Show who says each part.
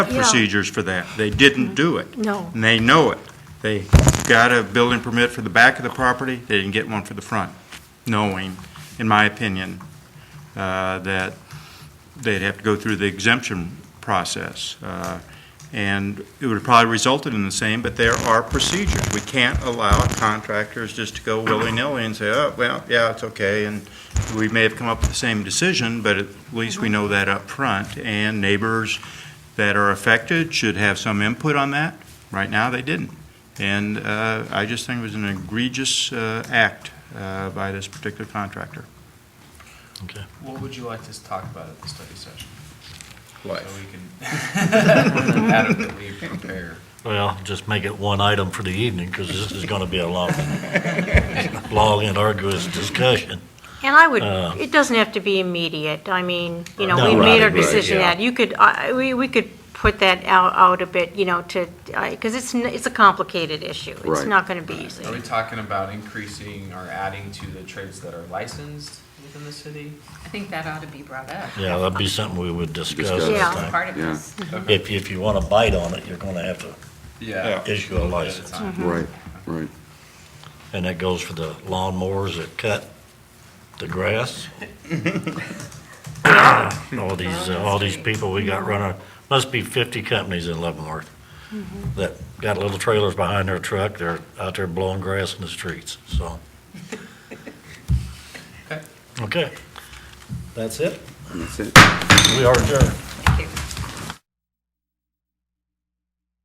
Speaker 1: procedures for that. They didn't do it.
Speaker 2: No.
Speaker 1: And they know it. They got a building permit for the back of the property, they didn't get one for the front, knowing, in my opinion, uh, that they'd have to go through the exemption process. Uh, And it would have probably resulted in the same, but there are procedures. We can't allow contractors just to go willy-nilly and say, oh, well, yeah, it's okay, and we may have come up with the same decision, but at least we know that up front. And neighbors that are affected should have some input on that. Right now, they didn't. And uh, I just think it was an egregious uh, act uh, by this particular contractor.
Speaker 3: What would you like to talk about at the study session? So we can adequately prepare.
Speaker 4: Well, just make it one item for the evening, because this is going to be a long, long and arduous discussion.
Speaker 2: And I would,
Speaker 4: Uh,
Speaker 2: it doesn't have to be immediate. I mean, you know,
Speaker 4: No,
Speaker 2: we made
Speaker 4: right,
Speaker 2: our
Speaker 4: right,
Speaker 2: decision
Speaker 4: yeah.
Speaker 2: that, you could, I- we, we could put that out, out a bit, you know, to, because it's, n- it's a complicated issue. It's
Speaker 5: Right.
Speaker 2: not going to be easy.
Speaker 3: Are we talking about increasing or adding to the trades that are licensed within the city?
Speaker 6: I think that ought to be brought up.
Speaker 4: Yeah, that'd be something we would discuss.
Speaker 5: Discuss.
Speaker 2: Yeah.
Speaker 4: I think.
Speaker 6: Part of
Speaker 5: Yeah.
Speaker 6: this.
Speaker 4: If, if you want to bite on it, you're going to have to
Speaker 3: Yeah.
Speaker 4: issue a
Speaker 3: At a
Speaker 4: license.
Speaker 3: time.
Speaker 5: Right, right.
Speaker 4: And that goes for the lawnmowers that cut the grass. All these, uh, all these people we got running, must be 50 companies in Leavenworth that got little trailers behind their truck, they're out there blowing grass in the streets, so.
Speaker 3: Okay.
Speaker 4: Okay. That's it?
Speaker 5: That's it.
Speaker 4: We are adjourned.